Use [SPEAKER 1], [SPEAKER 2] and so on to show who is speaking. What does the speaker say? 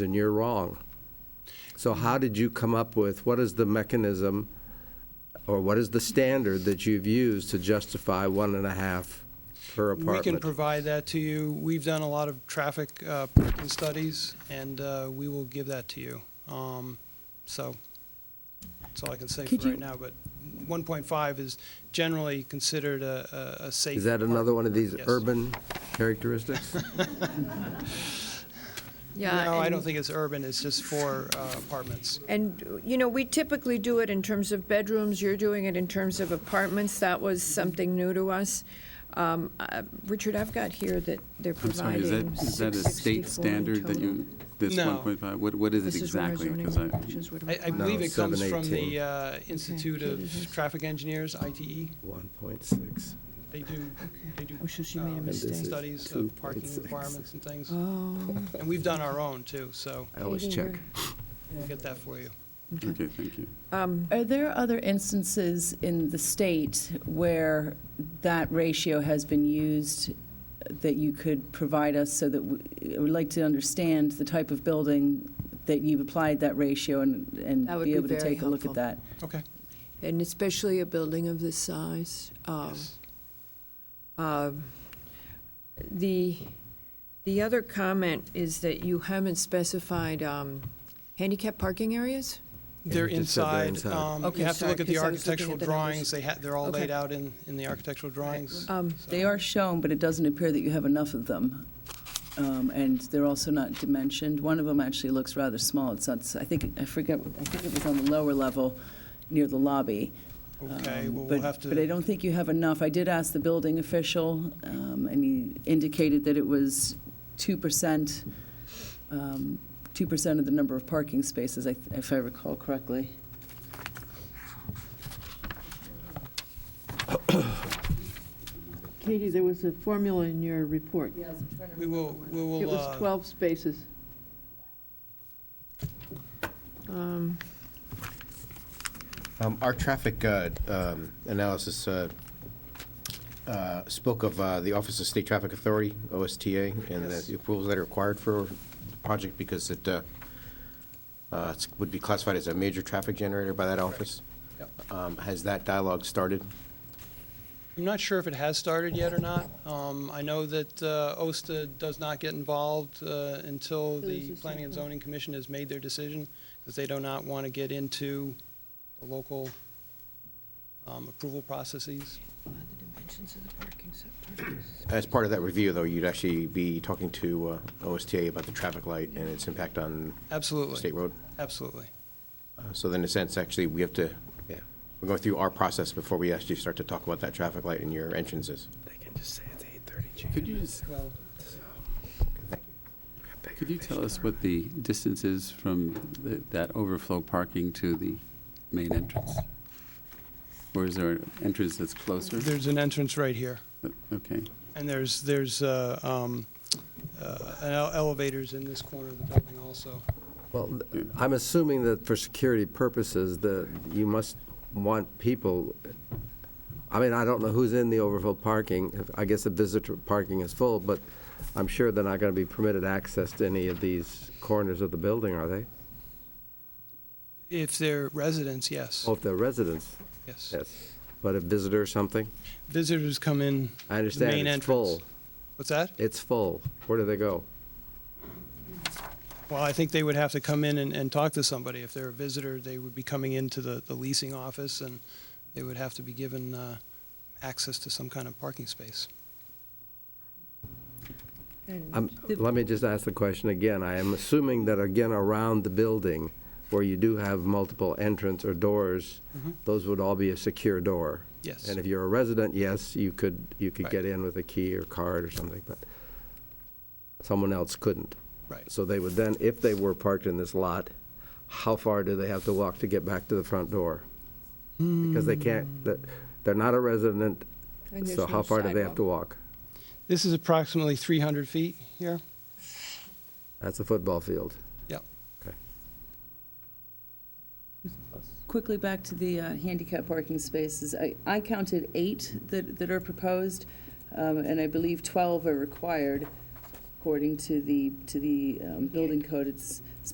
[SPEAKER 1] then you're wrong. So how did you come up with, what is the mechanism, or what is the standard that you've used to justify one and a half per
[SPEAKER 2] We can
[SPEAKER 1] apartment?
[SPEAKER 2] provide that to you. We've done a lot of traffic uh, parking studies, and uh, we will give that to you. Um, So, that's all I can say
[SPEAKER 3] Could
[SPEAKER 2] for right
[SPEAKER 3] you-
[SPEAKER 2] now, but 1.5 is generally considered a, a a safe.
[SPEAKER 1] Is that another one of these
[SPEAKER 2] Yes.
[SPEAKER 1] urban characteristics?
[SPEAKER 3] Yeah.
[SPEAKER 2] No, I
[SPEAKER 3] and-
[SPEAKER 2] don't think it's urban, it's just for uh, apartments.
[SPEAKER 3] And, you know, we typically do it in terms of bedrooms, you're doing it in terms of apartments, that was something new to us. Um, uh, Richard, I've got here that they're
[SPEAKER 4] I'm sorry, is that,
[SPEAKER 3] providing
[SPEAKER 4] is that a state
[SPEAKER 3] 664 in
[SPEAKER 4] standard that
[SPEAKER 3] total.
[SPEAKER 4] you, this
[SPEAKER 2] No.
[SPEAKER 4] 1.5, what, what is
[SPEAKER 3] This
[SPEAKER 4] it
[SPEAKER 3] is where our
[SPEAKER 4] exactly?
[SPEAKER 3] zoning
[SPEAKER 4] 'Cause I-
[SPEAKER 3] regulations would
[SPEAKER 2] I, I
[SPEAKER 3] require.
[SPEAKER 2] believe it comes from
[SPEAKER 1] 718.
[SPEAKER 2] the uh, Institute
[SPEAKER 3] Katie has-
[SPEAKER 2] of Traffic Engineers, ITE.
[SPEAKER 1] 1.6.
[SPEAKER 2] They do, they do
[SPEAKER 3] Oh, so she
[SPEAKER 2] um,
[SPEAKER 3] made a mistake.
[SPEAKER 2] studies of parking
[SPEAKER 1] 2.6.
[SPEAKER 2] requirements and things,
[SPEAKER 3] Oh,
[SPEAKER 2] and we've done our own, too, so
[SPEAKER 1] I always
[SPEAKER 3] Katie,
[SPEAKER 1] check.
[SPEAKER 3] you're-
[SPEAKER 2] we'll get that for you.
[SPEAKER 4] Okay, thank you.
[SPEAKER 3] Um,
[SPEAKER 5] Are there other instances in the state where that ratio has been used that you could provide us so that, we- I would like to understand the type of building that you've applied that ratio and, and
[SPEAKER 3] That would
[SPEAKER 5] be
[SPEAKER 3] be
[SPEAKER 5] able to
[SPEAKER 3] very
[SPEAKER 5] take a look
[SPEAKER 3] helpful.
[SPEAKER 5] at that?
[SPEAKER 2] Okay.
[SPEAKER 3] and especially a building of this size. um,
[SPEAKER 2] Yes.
[SPEAKER 3] Uh, The, the other comment is that you haven't specified um, handicap parking areas?
[SPEAKER 2] They're
[SPEAKER 1] You just said they're
[SPEAKER 2] inside.
[SPEAKER 1] inside.
[SPEAKER 2] um,
[SPEAKER 3] Okay,
[SPEAKER 2] You have to
[SPEAKER 3] sorry,
[SPEAKER 2] look at the
[SPEAKER 3] 'cause I was looking
[SPEAKER 2] architectural
[SPEAKER 3] at the numbers.
[SPEAKER 2] drawings. They ha, they're all
[SPEAKER 3] Okay.
[SPEAKER 2] laid out in, in the architectural drawings.
[SPEAKER 3] Um,
[SPEAKER 2] so-
[SPEAKER 5] They are shown, but it doesn't appear that you have enough of them. Um, And they're also not dimensioned. One of them actually looks rather small. It's, not- I think, I forget, I think it was on the lower level near the lobby.
[SPEAKER 2] Okay,
[SPEAKER 5] Um,
[SPEAKER 2] well, we'll
[SPEAKER 5] but-
[SPEAKER 2] have to.
[SPEAKER 5] But I don't think you have enough. I did ask the building official, um, and he indicated that it was 2%, um, 2% of the number of parking spaces, I- if I recall correctly.
[SPEAKER 6] Katie, there was a formula in your report.
[SPEAKER 2] We will, we
[SPEAKER 6] It
[SPEAKER 2] will,
[SPEAKER 6] was
[SPEAKER 2] uh,
[SPEAKER 6] 12 spaces.
[SPEAKER 3] Um,
[SPEAKER 7] Um, Our traffic uh, um, analysis uh, uh, spoke of uh, the Office of State Traffic Authority, OSTA, and
[SPEAKER 2] Yes.
[SPEAKER 7] the approvals that are required for the project because it uh, uh, it's- would be classified as a major traffic generator by that office. Um, Has that dialogue started?
[SPEAKER 2] I'm not sure if it has started yet or not. Um, I know that uh, OSTA does not get involved uh, until
[SPEAKER 6] There's
[SPEAKER 2] the
[SPEAKER 6] a
[SPEAKER 2] Planning and
[SPEAKER 6] second.
[SPEAKER 2] Zoning Commission has made their decision, because they do not want to get into the local um, approval processes.
[SPEAKER 7] As part of that review, though, you'd actually be talking to uh, OSTA about the traffic light and its impact on
[SPEAKER 2] Absolutely,
[SPEAKER 7] state road?
[SPEAKER 2] absolutely.
[SPEAKER 7] Uh, So then, in a sense, actually, we have to, yeah, we're going through our process before we actually start to talk about that traffic light and your entrances.
[SPEAKER 1] They can just say it's 8:30, Jane.
[SPEAKER 4] Could you just,
[SPEAKER 2] Well,
[SPEAKER 4] could you tell us what the distance is from the- that overflow parking to the main entrance? Or is there an entrance that's closer? Uh,
[SPEAKER 2] There's an entrance right here.
[SPEAKER 4] Okay,
[SPEAKER 2] And there's, there's uh, um, uh, an ele- elevators in this corner of the building also.
[SPEAKER 1] Well, th- I'm assuming that for security purposes, that you must want people, I mean, I don't know who's in the overflow parking. If- I guess the visitor parking is full, but I'm sure they're not going to be permitted access to any of these corners of the building, are they?
[SPEAKER 2] If they're residents, yes,
[SPEAKER 1] Oh, if they're residents,
[SPEAKER 2] yes.
[SPEAKER 1] yes. But a visitor or something?
[SPEAKER 2] Visitors come in,
[SPEAKER 1] I understand,
[SPEAKER 2] main
[SPEAKER 1] it's full.
[SPEAKER 2] entrance. what's that?
[SPEAKER 1] It's full. Where do they go?
[SPEAKER 2] Well, I think they would have to come in and, and talk to somebody. If they're a visitor, they would be coming into the, the leasing office and they would have to be given uh, access to some kind of parking space.
[SPEAKER 3] and-
[SPEAKER 1] Um, Let me just ask the question again. I am assuming that, again, around the building, where you do have multiple entrance or doors,
[SPEAKER 2] Mhm.
[SPEAKER 1] those would all be a secure door.
[SPEAKER 2] Yes.
[SPEAKER 1] And if you're a resident, yes, you could, you could
[SPEAKER 2] Right.
[SPEAKER 1] get in with a key or card or something, but someone else couldn't.
[SPEAKER 2] Right.
[SPEAKER 1] So they would then, if they were parked in this lot, how far do they have to walk to get back to the front door? Because they
[SPEAKER 2] Hmm.
[SPEAKER 1] can't, that- they're not a resident,
[SPEAKER 3] And there's
[SPEAKER 1] so how
[SPEAKER 3] no
[SPEAKER 1] far do they have to
[SPEAKER 3] sidewalk.
[SPEAKER 1] walk?
[SPEAKER 2] This is approximately 300 feet here.
[SPEAKER 1] That's a football field.
[SPEAKER 2] Yep.
[SPEAKER 1] Okay.
[SPEAKER 5] Quickly back to the uh, handicap parking spaces. I- I counted eight that that are proposed, um, and I believe 12 are required. according to the, to the um, building code, it's